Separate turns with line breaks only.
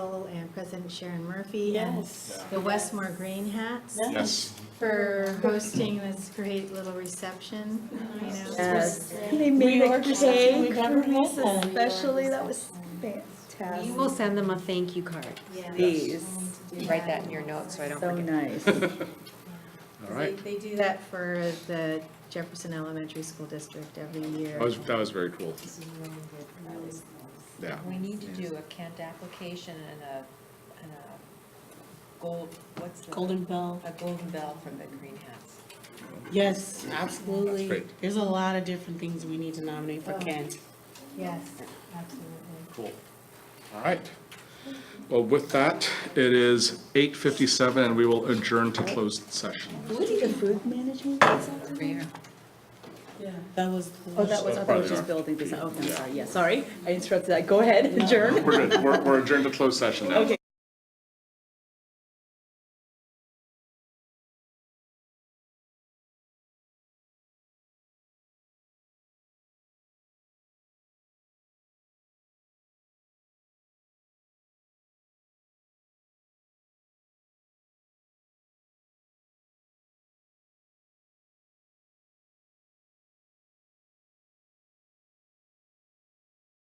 uh, President Sharon Murphy and
Yes.
the Westmore Green Hats
Yes.
for hosting this great little reception, you know.
Yes.
They
made
made
a
a
Largest reception cake we've
cake
ever
for
for us
us
had.
especially, that was fantastic.
You will send them a thank you card.
Yeah.
These,
You Write that in your notes so I don't
so
forget.
nice.
All right.
They they do that for the Jefferson Elementary School District every year.
That was, that was very cool. Yeah.
We need to do a Kent application and a, and a gold, what's the?
Golden Bell.
A golden bell from the Green Hats.
Yes,
That's
absolutely.
great.
There's a lot of different things we need to nominate for Kent.
Yes, absolutely.
Cool. All right. Well, with that, it is 8:57 and we will adjourn to closed session.
The food management?
That was.
Oh, that was, I thought it was just building, design. oh, I'm sorry, yeah, sorry, I interrupted that, go ahead, adjourn.
We're good. We're we're adjourned to closed session now.
Okay.